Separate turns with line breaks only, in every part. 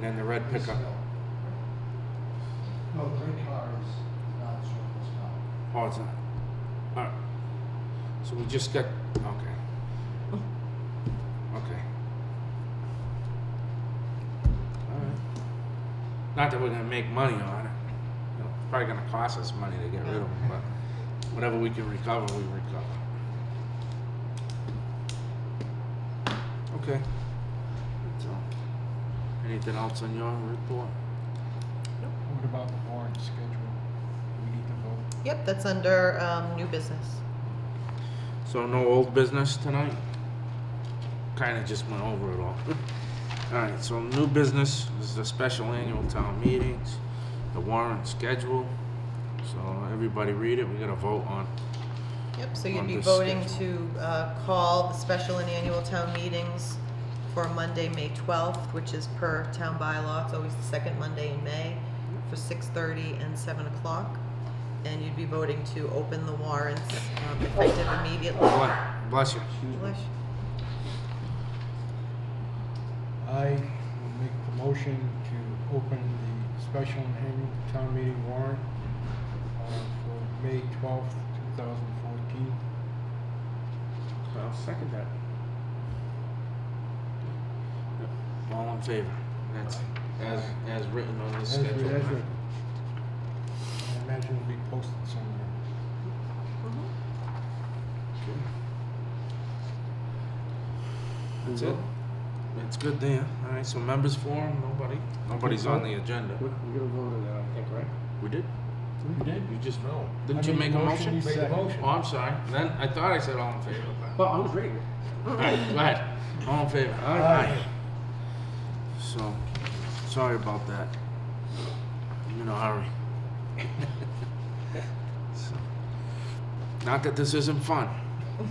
then the red pickup.
No, the red car is not surplus car.
Oh, it's not. All right. So we just got, okay. Oh. Okay. All right. Not that we're gonna make money on it. You know, it's Probably gonna cost us money to get rid of them, but whatever we can recover, we recover. Okay. That's all. Anything else on your report?
What about the board schedule? Do we need to vote?
Yep, that's under um, new business.
So no old business tonight? Kinda just went over it all. Alright, so new business is the special annual town meetings, the warrant schedule. So everybody read it, we gotta vote on.
Yep, so you'd
On
be
this
voting to uh, call the special and annual town meetings for Monday, May 12th, which is per town bylaw. It's always the second Monday in May for 6:30 and 7 o'clock. And you'd be voting to open the warrants um, effective immediately.
Bless bless you.
Bless you.
I will make the motion to open the special and annual town meeting warrant uh, for May twelfth, two thousand fourteen.
I'll second that. All in favor? That's as, as written on this
As we,
schedule.
as we, I imagine it'll be posted somewhere.
That's it. That's good there. Alright, so members forum, nobody? Nobody's on the agenda.
We're gonna vote on that, I think, right?
We did?
You did?
You just,
No.
didn't you make a motion?
Made the motion.
Oh, I'm sorry. Then I thought I said all in favor. but-
Well, I was reading.
All right, go ahead. All in favor?
Aye.
So, sorry about that. I'm in a hurry. So, Not that this isn't fun. All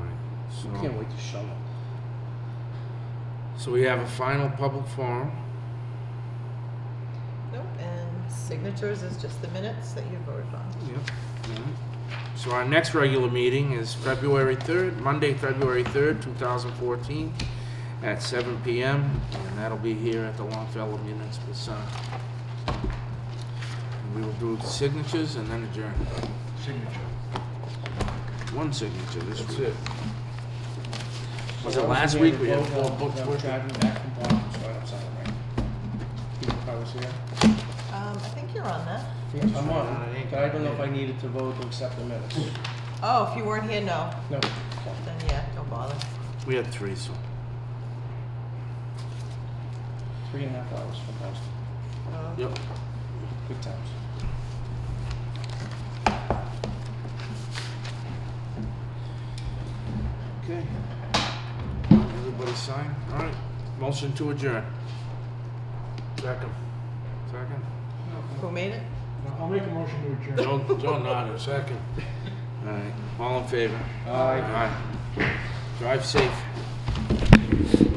right, so-
Can't wait to shovel.
So we have a final public forum.
Nope, and signatures is just the minutes that you voted on.
Yep. So our next regular meeting is February 3rd, Monday, February 3rd, 2014, at 7 PM, and that'll be here at the Longfellow Municipal Center. And We will do the signatures and then adjourn.
Signature.
One signature this week. Was it last week we had uh, four books
I was
worth?
driving back from Boston, so I don't sound right. People probably see that.
Um, I think you're on that.
I'm on, but I don't know if I needed to vote to accept the minutes.
Oh, if you weren't here, no.
No.
Then yeah, don't bother.
We had three, so.
Three and a half hours from Boston.
Uh,
Yep.
Good times.
Okay. Everybody sign? All right. Motion to adjourn. Second. Second?
Who made it?
Now, I'll make a motion to adjourn.
Joe, Joe nodded, second. All right, all in favor? Aye. Drive safe.